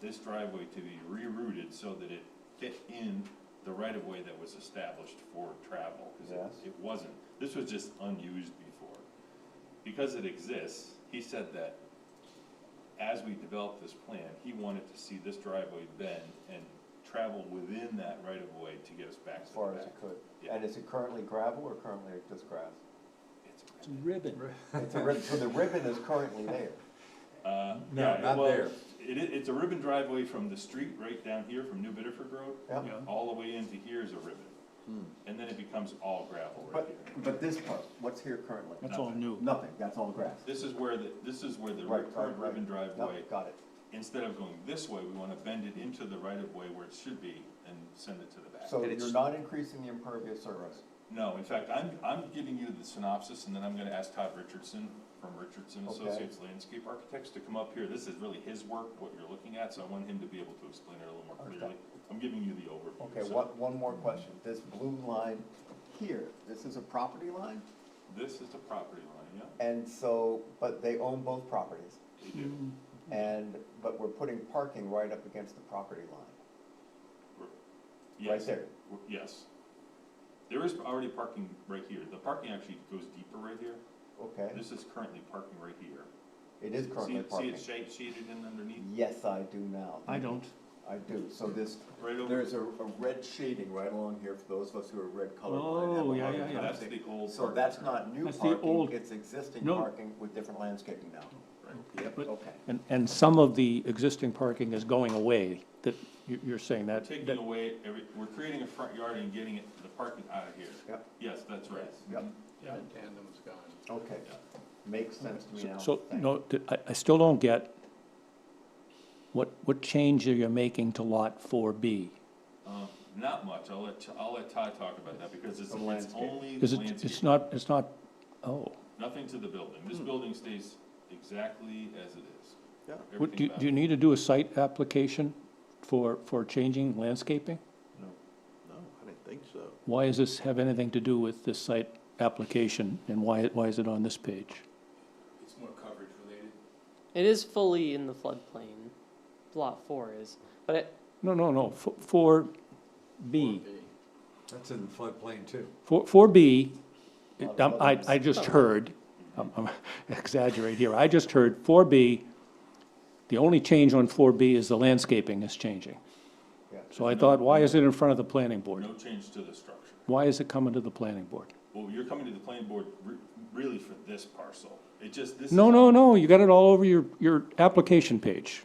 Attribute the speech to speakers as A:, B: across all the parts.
A: this driveway to be rerouted so that it fit in the right-of-way that was established for travel, because
B: Yes.
A: it wasn't. This was just unused before. Because it exists, he said that as we developed this plan, he wanted to see this driveway bend and travel within that right-of-way to get us back
B: as
A: to the
B: far as
A: back.
B: it could.
A: Yeah.
B: And is it currently gravel or currently just grass?
A: It's
C: It's
A: a-
C: ribbon.
B: It's a ribbon, so the ribbon is currently there.
A: Uh,
D: No,
A: yeah,
D: not
A: well,
D: there.
A: It, i- it's a ribbon driveway from the street right down here from New Bedford Road.
B: Yeah.
C: Yeah.
A: All the way into here is a ribbon. And then it becomes all gravel right here.
B: Hmm. But, but this part, what's here currently?
C: That's all new.
B: Nothing, that's all grass.
A: This is where the, this is where the
B: Right, right,
A: current ribbon
B: right. Yep,
A: driveway,
B: Got it.
A: instead of going this way, we wanna bend it into the right of way where it should be and send it to the back.
B: So
D: And it's-
B: you're not increasing the impervious surface.
A: No, in fact, I'm, I'm giving you the synopsis, and then I'm gonna ask Todd Richardson from Richardson
B: Okay.
A: Associates Landscape Architects to come up here. This is really his work, what you're looking at, so I want him to be able to explain it a little more
B: Okay.
A: clearly. I'm giving you the overview.
B: Okay,
A: so-
B: one, one more question. This blue line here, this is a property line?
A: This is the property line, yeah?
B: And so, but they own both properties.
A: They
B: Hmm.
A: do.
B: And, but we're putting parking right up against the property line.
A: We're- yes,
B: there.
A: we're- Yes. There is already parking right here. The parking actually goes deeper right here.
B: Okay,
A: This is currently parking right here.
B: it is
A: See,
B: currently
A: it- see
B: parking.
A: it shade- shaded in underneath?
B: Yes, I do now.
C: I don't.
B: I do. So this,
A: Right over,
B: there's a, a red shading right along here for those of us who are red color.
C: Oh, yeah, yeah, yeah.
A: that's the old.
B: So
A: parking
B: that's
A: area.
B: not new
C: That's the old-
B: parking, it's existing
C: No.
B: parking with different landscaping now. Yep,
C: But-
B: okay.
C: And, and some of the existing parking is going away, that you- you're saying
A: We're
C: that.
A: taking
C: that-
A: away every, we're creating a front yard and getting it, the parking out of here.
B: Yep.
A: Yes, that's right. Mm-hmm.
B: Yep,
D: Yeah, the tandem's gone.
B: okay. Makes sense to me now.
C: So,
B: Thank
C: no, th- I, I still don't get what, what change are you making to lot four B?
A: Um, not much, I'll let, I'll let Todd talk about that, because it's,
B: The
A: it's
B: landscape.
A: only
C: Is it, it's
A: landscape,
C: not, it's not, oh.
A: nothing to the building,
B: Hmm.
A: this building stays exactly as it is.
B: Yeah.
C: What, do,
A: Everything
C: you- do you
A: about
C: need to do a site application for, for changing landscaping?
D: No, no, I didn't think so.
C: Why does this have anything to do with this site application, and why, why is it on this page?
E: It's more coverage related.
F: It is fully in the floodplain. Lot four is, but it,
C: No, no, no, four B.
D: That's in the floodplain too.
C: Four, four B, um,
B: Lot of
C: I, I
B: others.
C: just heard, I'm I'm exaggerating here, I just heard four B, the only change on four B is the landscaping is changing.
B: Yeah.
C: So I thought, why is it in front of the planning board?
A: No change to the structure.
C: Why is it coming to the planning board?
A: Well, you're coming to the planning board re- really for this parcel, it just, this.
C: No,
A: is-
C: no, no, you got it all over your, your application page.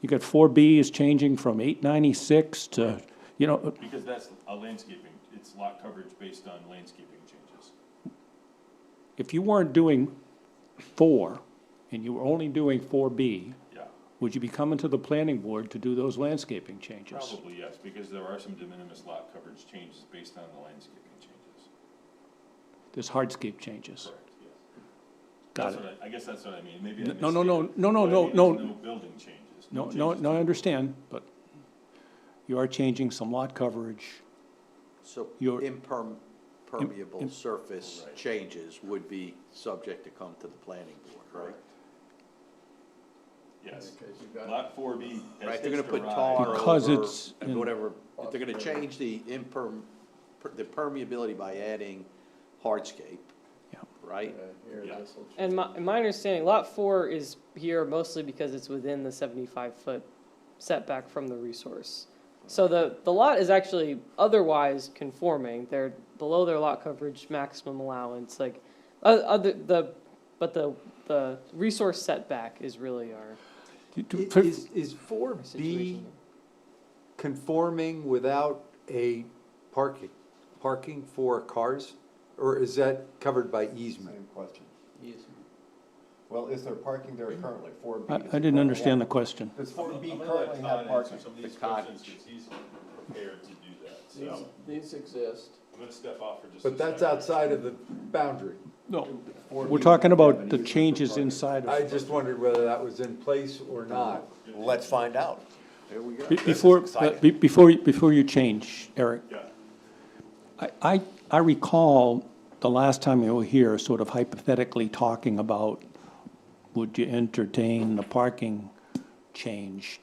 C: You got four B is changing from eight ninety-six to, you know,
A: Because that's a landscaping, it's lot coverage based on landscaping changes.
C: if you weren't doing four, and you were only doing four B,
A: Yeah,
C: would you be coming to the planning board to do those landscaping changes?
A: probably yes, because there are some de minimis lot coverage changes based on the landscaping changes.
C: There's hardscape changes.
A: Correct, yes.
C: Got
A: That's
C: it.
A: what I I guess that's what I mean, maybe I
C: No, no, no,
A: misstated.
C: no, no,
A: What I
C: no,
A: mean is
C: no.
A: No building changes.
C: No, no,
A: changes
C: no,
A: to-
C: I understand, but you are changing some lot coverage.
G: So
C: Your- im-
G: impermeable surface
A: Right.
G: changes would be subject to come to the planning board, right?
A: Yes,
E: Because you've got
A: lot four B has
G: Right, they're gonna
A: hitched a
G: put
A: ride.
G: tar
C: Because
G: over,
C: it's in-
G: and whatever, if they're gonna change the imperm, per- the permeability by adding hardscape,
C: Yeah.
G: right?
E: uh, here,
A: Yeah.
E: this will change.
F: and my, in my understanding, lot four is here mostly because it's within the seventy-five foot setback from the resource. So the, the lot is actually otherwise conforming. They're below their lot coverage maximum allowance, like, o- other, the, but the, the resource setback is really our.
C: Do- do- for-
D: Is, is four
F: our
D: B
F: situation.
D: conforming without a parking, parking for cars? Or is that covered by easement?
B: Same question. Well, is there parking there currently, four B?
C: I, I didn't
B: Oh,
C: understand the question.
B: Does four B
A: I'm gonna let
B: currently
A: Todd
B: have
A: answer
B: parking?
A: Some of these
G: The cottage.
A: questions, 'cause he's prepared to do that,
E: These,
A: so
E: these exist.
A: I'm gonna step off for just a second.
D: But that's outside of the boundary.
C: No.
B: 4B
C: We're talking
B: have
C: about
B: an
C: the
B: easement for
C: changes
B: parking.
C: inside
D: I
C: of,
D: just wondered whether that was in place or not.
B: Let's find out.
G: There we go.
C: Be- before, uh,
B: exciting.
C: be- before, you- before you change, Eric.
A: Yeah.
C: I, I, I recall the last time you were here, sort of hypothetically talking about, would you entertain the parking change